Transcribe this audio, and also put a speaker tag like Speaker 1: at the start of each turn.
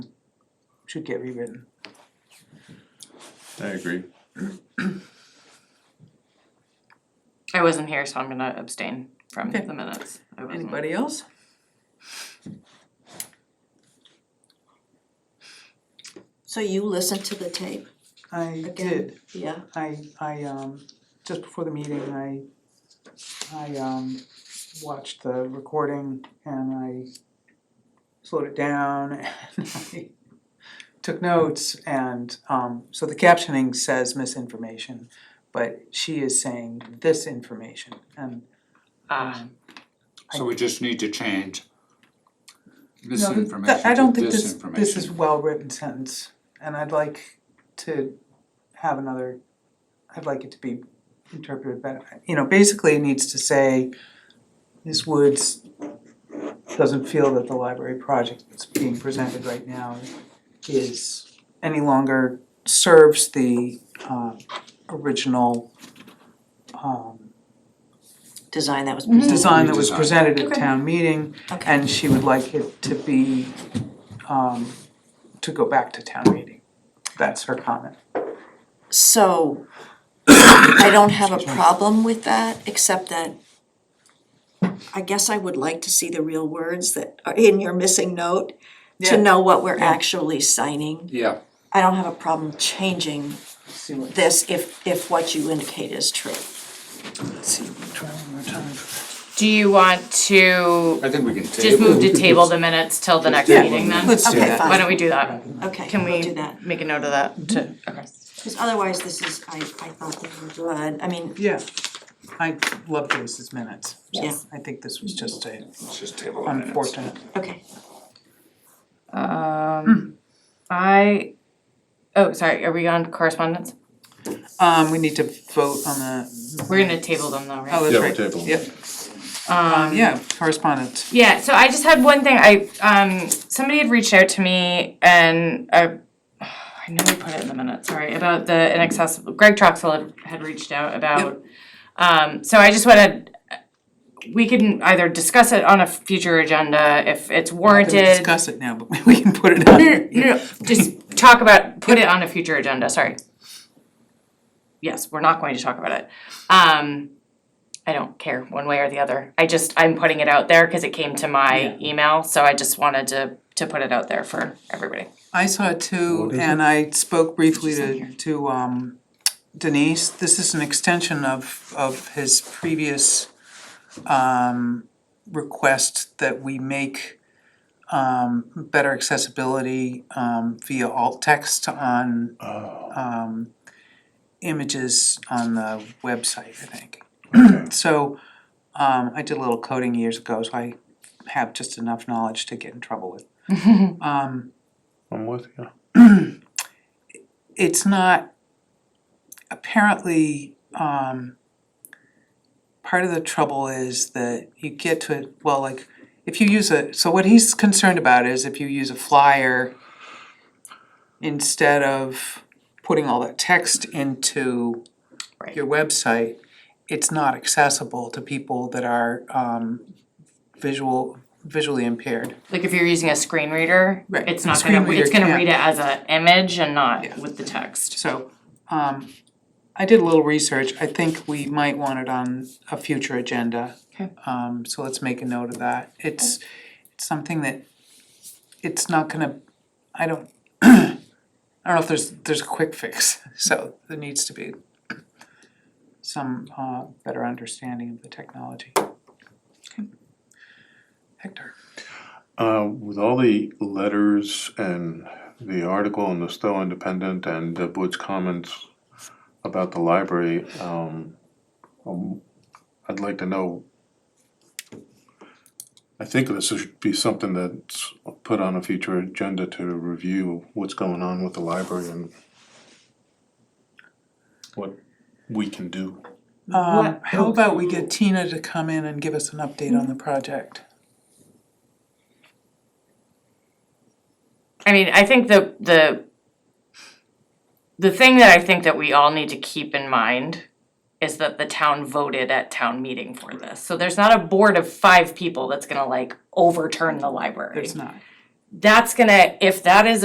Speaker 1: should get rewritten.
Speaker 2: I agree.
Speaker 3: I wasn't here, so I'm gonna abstain from
Speaker 1: Okay.
Speaker 3: the minutes. I wasn't.
Speaker 1: Anybody else?
Speaker 4: So you listened to the tape?
Speaker 1: I
Speaker 4: Again.
Speaker 1: did,
Speaker 4: Yeah.
Speaker 1: I, I, um, just before the meeting, I, I, um, watched the recording and I slowed it down and I took notes and, um, so the captioning says misinformation, but she is saying this information and
Speaker 3: Ah,
Speaker 5: So we just need to change
Speaker 1: No, th- th-
Speaker 5: misinformation
Speaker 1: I don't
Speaker 5: to
Speaker 1: think this, this is
Speaker 5: disinformation.
Speaker 1: well-written sentence, and I'd like to have another, I'd like it to be interpreted better. You know, basically it needs to say, Ms. Woods doesn't feel that the library project that's being presented right now is any longer serves the um original um
Speaker 4: Design that was
Speaker 3: Mhm.
Speaker 4: presented.
Speaker 1: design that was
Speaker 5: Redesign.
Speaker 1: presented at
Speaker 3: Okay.
Speaker 1: town meeting
Speaker 4: Okay.
Speaker 1: and she would like it to be, um, to go back to town meeting. That's her comment.
Speaker 4: So I don't have a problem with that, except that I guess I would like to see the real words that are in your missing note
Speaker 1: Yeah.
Speaker 4: to know what we're
Speaker 1: Yeah.
Speaker 4: actually signing.
Speaker 5: Yeah,
Speaker 4: I don't have a problem changing
Speaker 1: See what,
Speaker 4: this if if what you indicate is true.
Speaker 1: see, try one more time.
Speaker 3: do you want to
Speaker 5: I think we can table.
Speaker 3: just move to table the minutes till the next
Speaker 1: Yeah,
Speaker 3: meeting then?
Speaker 1: Let's do
Speaker 4: Okay,
Speaker 1: that.
Speaker 4: fine.
Speaker 3: Why don't we do that?
Speaker 4: Okay,
Speaker 3: Can
Speaker 4: we'll
Speaker 3: we
Speaker 4: do that.
Speaker 3: make a note of that to, okay.
Speaker 4: Because otherwise, this is, I I thought they were good. I mean,
Speaker 1: Yeah, I love Joyce's minutes.
Speaker 4: Yeah.
Speaker 1: I think this was just a
Speaker 5: Let's just table the minutes.
Speaker 1: unfortunate.
Speaker 4: okay.
Speaker 3: Um, I, oh, sorry, are we on correspondence?
Speaker 1: Um, we need to vote on the.
Speaker 3: We're gonna table them
Speaker 1: Oh,
Speaker 3: though, right?
Speaker 1: that's
Speaker 2: Yeah,
Speaker 1: right.
Speaker 2: we'll table.
Speaker 1: Yep,
Speaker 3: Um,
Speaker 1: yeah, correspondence.
Speaker 3: Yeah, so I just had one thing. I um somebody had reached out to me and I I know we put it in the minutes, sorry, about the inaccessible Greg Troxel had, had reached out about um so I just wanted we can either discuss it on a future agenda if it's
Speaker 1: We can
Speaker 3: warranted.
Speaker 1: Discuss it now, but we can put it on.
Speaker 3: No, no, no, no, just talk about, put it on a future agenda, sorry. Yes, we're not going to talk about it. Um, I don't care one way or the other. I just, I'm putting it out there because it came to my email, so I just wanted to, to put it out there for everybody.
Speaker 1: I saw it too, and I spoke briefly to to um Denise, this is an extension of of his previous um request that we make um better accessibility um via alt text on um images on the website, I think. So um I did a little coding years ago, so I have just enough knowledge to get in trouble with. Um
Speaker 2: I'm with you.
Speaker 1: it's not apparently um part of the trouble is that you get to it, well, like if you use a, so what he's concerned about is if you use a flyer instead of putting all that text into
Speaker 3: Right.
Speaker 1: your website, it's not accessible to people that are um visual visually impaired.
Speaker 3: Like if you're using a screen reader,
Speaker 1: Right,
Speaker 3: it's
Speaker 1: a
Speaker 3: not
Speaker 1: screen
Speaker 3: gonna,
Speaker 1: reader
Speaker 3: it's gonna
Speaker 1: can't.
Speaker 3: read it as an image and
Speaker 1: Yeah.
Speaker 3: not with the text.
Speaker 1: So, um, I did a little research, I think we might want it on a future agenda.
Speaker 3: Okay.
Speaker 1: Um, so let's make a note of that, it's, it's something that, it's not gonna, I don't, I don't know if there's, there's a quick fix, so there needs to be some, uh, better understanding of the technology. Hector,
Speaker 2: Uh, with all the letters and the article in the Stowe Independent and uh, Woods' comments about the library, um, um, I'd like to know. I think this should be something that's put on a future agenda to review what's going on with the library and what we can do.
Speaker 1: um,
Speaker 3: What-
Speaker 1: how about we get Tina to come in and give us an update on the project?
Speaker 3: I mean, I think the the the thing that I think that we all need to keep in mind is that the town voted at town meeting for this. So there's not a board of five people that's gonna like overturn the library.
Speaker 1: There's not.
Speaker 3: That's gonna, if that is